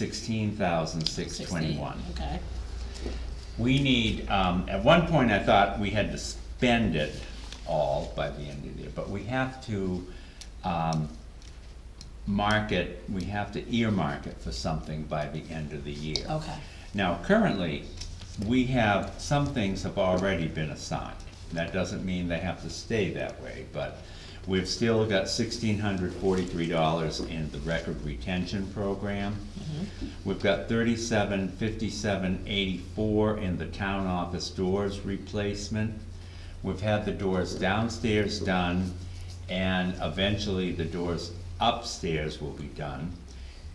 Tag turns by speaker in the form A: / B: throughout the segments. A: sixteen thousand six twenty-one.
B: Okay,
A: We need, um, at one point I thought we had to spend it all by the end of the year, but we have to, um, mark it, we have to earmark it for something by the end of the year.
B: okay,
A: Now, currently, we have, some things have already been assigned. That doesn't mean they have to stay that way, but we've still got sixteen hundred forty-three dollars in the record retention program. We've got thirty-seven fifty-seven eighty-four in the town office doors replacement. We've had the doors downstairs done, and eventually the doors upstairs will be done.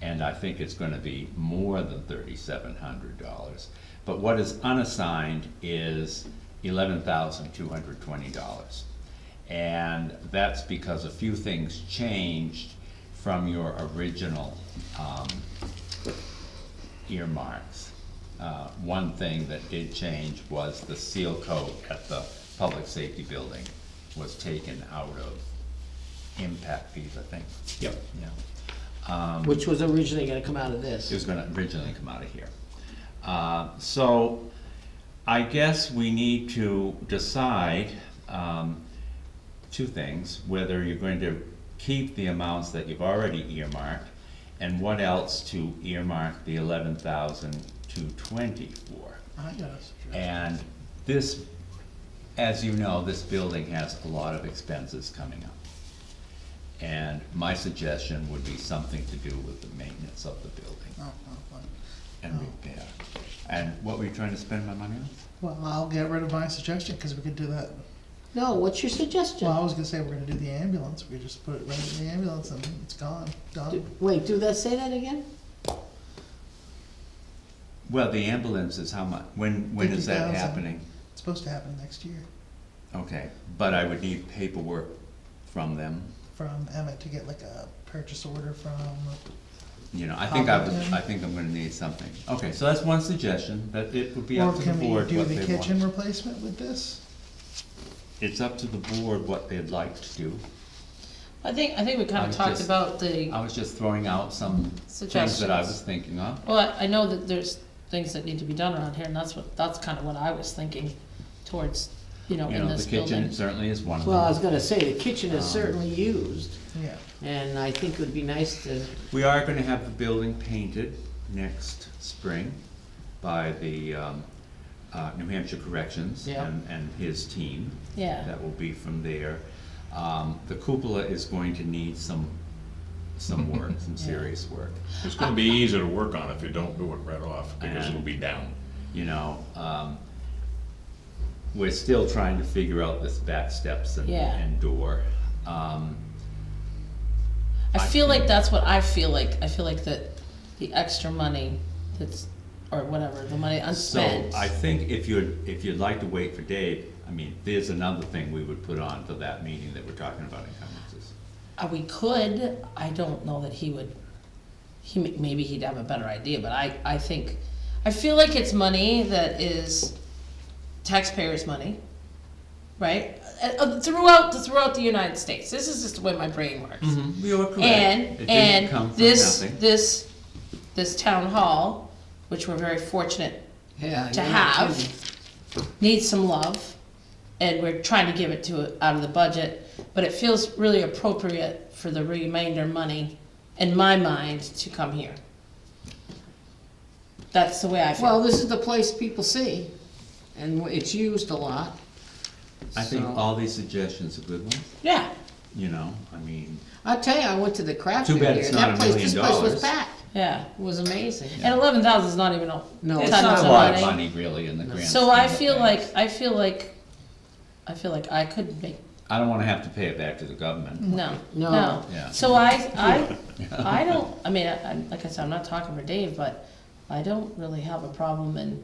A: And I think it's gonna be more than thirty-seven hundred dollars. But what is unassigned is eleven thousand two hundred twenty dollars. And that's because a few things changed from your original, um, earmarks. Uh, one thing that did change was the seal coat at the public safety building was taken out of impact fees, I think,
C: Yep.
A: yeah.
C: Which was originally gonna come out of
A: It
C: this.
A: was gonna originally come out of here. Uh, so, I guess we need to decide, um, two things, whether you're going to keep the amounts that you've already earmarked, and what else to earmark the eleven thousand two twenty for.
C: I got a suggestion.
A: And this, as you know, this building has a lot of expenses coming up. And my suggestion would be something to do with the maintenance of the building
D: Oh, oh, oh.
A: and repair. And what were you trying to spend my money on?
D: Well, I'll get rid of my suggestion, cause we could do that,
C: No, what's your suggestion?
D: well, I was gonna say we're gonna do the ambulance, we just put it right in the ambulance and it's gone,
C: Do-
D: done.
C: Wait, do that, say that again?
A: Well, the ambulance is how much, when, when is that
D: 50,000.
A: happening?
D: It's supposed to happen next year
A: Okay, but I would need paperwork from them.
D: from Emmett to get like a purchase order from,
A: You know, I think I would,
D: Probably.
A: I think I'm gonna need something. Okay, so that's one suggestion, that it would be
D: or
A: up to the
D: can we
A: board
D: do
A: what they
D: the
A: want.
D: kitchen replacement with this?
A: It's up to the board what they'd like to do.
B: I think, I think we
A: I
B: kinda
A: was
B: talked
A: just-
B: about the,
A: I was just throwing out some things that I
B: Suggestions.
A: was thinking of.
B: well, I- I know that there's things that need to be done around here, and that's what, that's kinda what I was thinking towards, you know,
A: You
B: in
A: know,
B: this
A: the kitchen
B: building.
A: certainly is one of
C: Well, I was
A: them.
C: gonna say, the kitchen is
A: Um,
C: certainly used,
D: Yeah,
C: and I think it would be nice to,
A: We are gonna have the building painted next spring by the, um, uh, New Hampshire Corrections
C: Yeah.
A: and, and his team.
B: Yeah.
A: That will be from there. Um, the cupola is going to need some, some work, some serious work.
E: It's gonna be easier to work on if you don't do it right off, because it'll be down.
A: you know, um, we're still trying to figure out this back steps and,
B: Yeah.
A: and door. Um,
B: I feel like that's what I feel like, I feel like that the extra money that's, or whatever, the money
A: so
B: unspent.
A: I think if you'd, if you'd like to wait for Dave, I mean, there's another thing we would put on for that meeting that we're talking about encumbrances.
B: Uh, we could, I don't know that he would, he, m- maybe he'd have a better idea, but I, I think, I feel like it's money that is taxpayers' money, right? Uh, uh, Throughout, throughout the United States, this is just the way my brain works.
A: You are Mm-hmm. correct. It
B: And,
A: didn't come
B: and
A: from
B: this,
A: nothing.
B: this, this town hall, which we're very fortunate
C: yeah.
B: to
C: you're not kidding.
B: have needs some love, and we're trying to give it to it out of the budget. But it feels really appropriate for the remainder money, in my mind, to come here. That's the way I feel.
C: Well, this is the place people see, and it's used a lot.
A: I think
C: so-
A: all these suggestions are good ones,
B: yeah,
A: you know, I mean,
C: I'll tell you, I went to the craft
A: Too
C: fair
A: bad
C: here,
A: it's
C: and
A: not
C: that
A: a
C: place,
A: million
C: this place
A: dollars.
C: was packed,
B: yeah.
C: it was amazing.
B: And eleven thousand is not even a
C: No,
B: tons
C: it's
A: it's
C: not
A: not
B: of
A: a lot of
B: money.
A: money really in the grand scheme
B: So I
A: of
B: feel like
A: things.
B: I feel like I feel like I could make
A: I don't wanna have to pay it back to the government.
B: No,
C: No.
B: no.
A: Yeah.
B: So I, I, I don't, I mean, I, I'm- like I said, I'm not talking for Dave, but I don't really have a problem in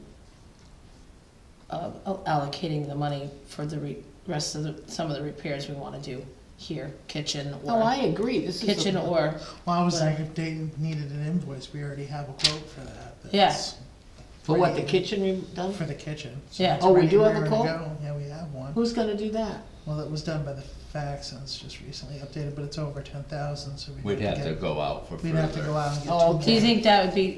B: uh, al- allocating the money for the re- rest of the, some of the repairs we wanna do here, kitchen
C: Oh, I
B: or,
C: agree, this is. a-
B: kitchen or,
D: well, I was like, if Dayton needed an invoice, we already have a quote for that.
B: Yeah.
D: that's
C: For what, the kitchen re- done?
D: For the kitchen. So
B: yeah.
D: it's
C: Oh, we
D: ready-
C: do have
D: we're
C: a
D: ready to
C: quote?
D: go. Yeah, we have one.
C: Who's gonna do that?
D: Well, it was done by the fax and it's just recently updated, but it's over ten thousand, so we'd
A: We'd
D: have to
A: have
D: get.
A: to go out for further.
D: We'd have to go out and get.
C: Oh,
D: two
C: okay.
B: Do you think that would be